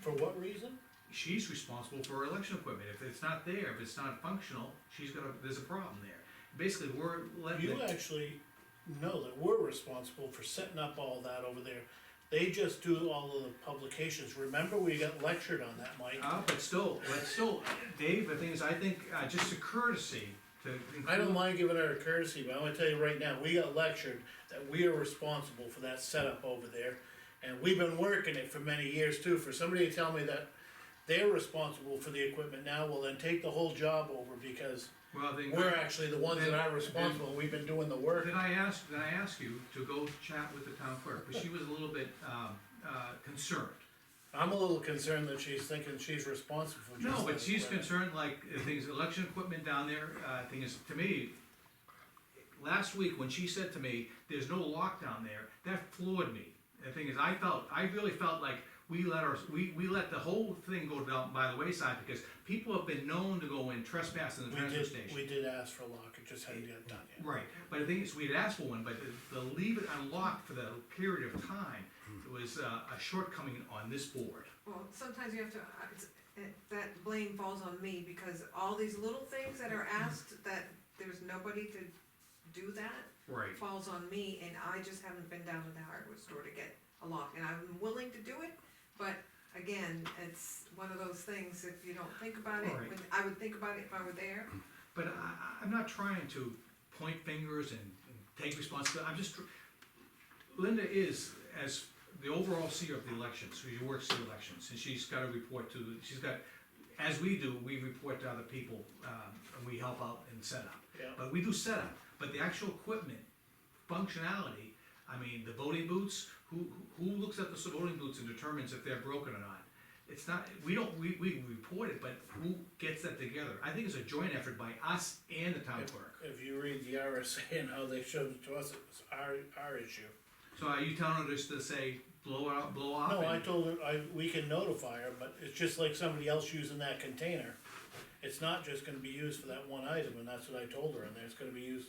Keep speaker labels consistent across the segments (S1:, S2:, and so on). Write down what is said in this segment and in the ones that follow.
S1: For what reason?
S2: She's responsible for her election equipment, if it's not there, if it's not functional, she's gonna, there's a problem there. Basically, we're letting,
S1: You
S2: the-
S1: actually know that we're responsible for setting up all that over there. They just do all of the publications, remember we got lectured on that, Mike?
S2: uh, but still, but still, Dave, the thing is, I think, uh, just a courtesy to. include-
S1: I don't mind giving her a courtesy, but I'm gonna tell you right now, we got lectured that we are responsible for that setup over there. And we've been working it for many years too, for somebody to tell me that they're responsible for the equipment now, well then take the whole job over because
S2: Well, then.
S1: we're actually the ones that are
S2: Then-
S1: responsible, we've been doing the work.
S2: Did I ask, did I ask you to go chat with the town clerk, because she was a little bit, um, uh, concerned.
S1: I'm a little concerned that she's thinking she's responsible for just.
S2: No, but
S1: this
S2: she's
S1: weather.
S2: concerned, like, the things, election equipment down there, uh, thing is, to me, last week when she said to me, there's no lock down there, that floored me. The thing is, I felt, I really felt like we let our, we, we let the whole thing go down by the wayside, because people have been known to go in trespass in the
S1: We
S2: transfer
S1: did,
S2: station.
S1: we did ask for a lock, it just hadn't got done yet.
S2: Right, but the thing is, we had asked for one, but to- to leave it unlocked for the period of time,
S1: Hmm.
S2: was uh, a shortcoming on this board.
S3: Well, sometimes you have to, I- it's- it- that blame falls on me, because all these little things that are asked, that there's nobody to do that,
S2: Right.
S3: falls on me, and I just haven't been down to the hardware store to get a lock, and I'm willing to do it, but again, it's one of those things, if you don't think about it,
S2: Right.
S3: when- I would think about it if I were there,
S2: But I, I- I'm not trying to point fingers and and take responsibility, I'm just, tr- Linda is, as the overall seer of the elections, she works the elections, and she's gotta report to, she's got, as we do, we report to other people, um, and we help out in setup.
S1: Yeah.
S2: But we do setup, but the actual equipment, functionality, I mean, the voting booths, who, who looks at the voting booths and determines if they're broken or not? It's not, we don't, we, we report it, but who gets that together? I think it's a joint effort by us and the town clerk.
S1: If you read the RSA and how they showed it to us, it was our, our issue.
S2: So are you telling her just to say, blow it out, blow off?
S1: No, I
S2: and-
S1: told her, I, we can notify her, but it's just like somebody else using that container. It's not just gonna be used for that one item, and that's what I told her, and there's gonna be used,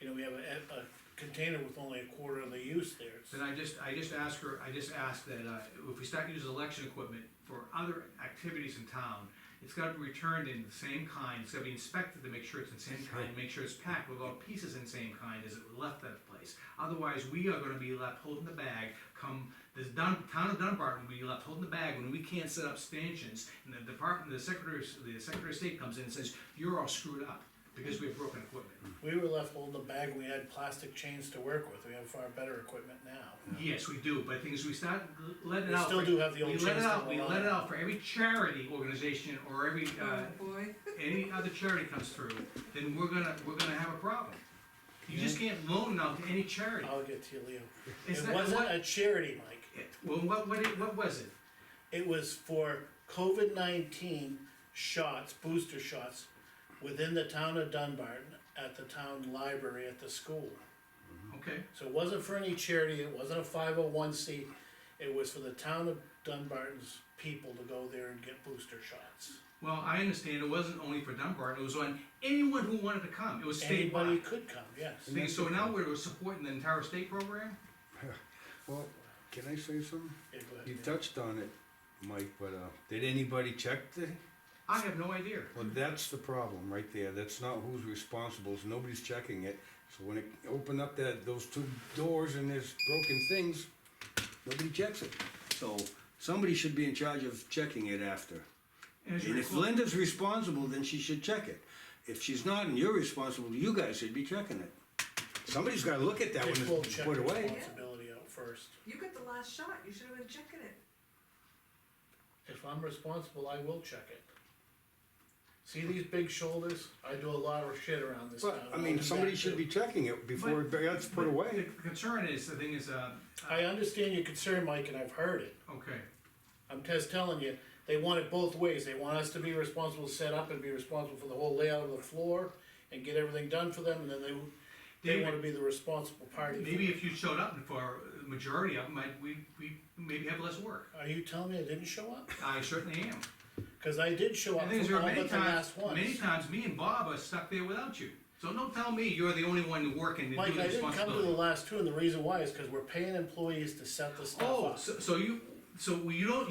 S1: you know, we have a, a container with only a quarter of the use there. It's-
S2: Then I just, I just ask her, I just ask that, uh, if we start using election equipment for other activities in town, it's gotta be returned in the same kind, it's gotta be inspected to make sure it's in the same kind, make sure it's packed without pieces in the same kind as it left that place. Otherwise, we are gonna be left holding the bag, come, this Dun, town of Dunbar will be left holding the bag when we can't set up stanchions, and the department, the secretary, of- the secretary of state comes in and says, you're all screwed up, because we have broken equipment.
S1: We were left holding the bag, we had plastic chains to work with, we have far better equipment now.
S2: Yes, we do, but the thing is, we start l- letting it
S1: We
S2: out.
S1: still
S2: for-
S1: do have the old
S2: We let it
S1: chairs
S2: out,
S1: that
S2: we
S1: were
S2: let it
S1: on.
S2: out for every charity organization or every, uh,
S3: oh boy.
S2: any other charity comes through, then we're gonna, we're gonna have a problem. You just can't loan it out to any charity.
S1: I'll get to you, Leo.
S2: It's
S1: It
S2: not-
S1: wasn't
S2: what-
S1: a charity, Mike.
S2: it- Well, what, what, it- what was it?
S1: It was for COVID nineteen shots, booster shots, within the town of Dunbarton, at the town library, at the school.
S2: Okay,
S1: So it wasn't for any charity, it wasn't a five oh one C, it was for the town of Dunbarton's people to go there and get booster shots.
S2: well, I understand it wasn't only for Dunbar, it was on anyone who wanted to come, it was
S1: Anybody
S2: statewide.
S1: could come, yes.
S2: Thing is, So now we're supporting the entire state program?
S4: Well, can I say something?
S1: Yeah, go ahead.
S4: You touched on it, Mike, but, uh, did anybody check the,
S2: I have no idea.
S4: well, that's the problem right there, that's not who's responsible, is nobody's checking it. So when it opened up that, those two doors and there's broken things, nobody checks it. So somebody should be in charge of checking it after.
S2: And as you
S4: And if
S2: recall-
S4: Linda's responsible, then she should check it. If she's not and you're responsible, you guys should be checking it. Somebody's gotta look at that
S1: They
S4: when
S1: pulled
S4: it's
S1: check
S4: put away.
S1: responsibility out first.
S3: You get the last shot, you should have been checking it.
S1: If I'm responsible, I will check it. See these big shoulders? I do a lot of shit around this town.
S4: But, I mean, somebody should be checking it before it gets
S2: But
S4: put away.
S2: The concern is, the thing is, uh,
S1: I understand your concern, Mike, and I've heard it.
S2: okay.
S1: I'm just telling you, they want it both ways. They want us to be responsible, to set up and be responsible for the whole layout of the floor and get everything done for them, and then they, they
S2: David-
S1: wanna be the responsible party. for
S2: Maybe
S1: it.
S2: if you showed up for the majority of them, I'd, we, we maybe have less work.
S1: Are you telling me I didn't show up?
S2: I certainly am.
S1: Cause I did show
S2: And
S1: up
S2: things
S1: for
S2: are
S1: all
S2: many
S1: but the
S2: times,
S1: last ones.
S2: many times, me and Bob are stuck there without you. So don't tell me you're the only one working and
S1: Mike,
S2: doing the
S1: I didn't come to the
S2: responsibility.
S1: last two, and the reason why is cause we're paying employees to set the stuff up.
S2: Oh, so, so you, so you don't,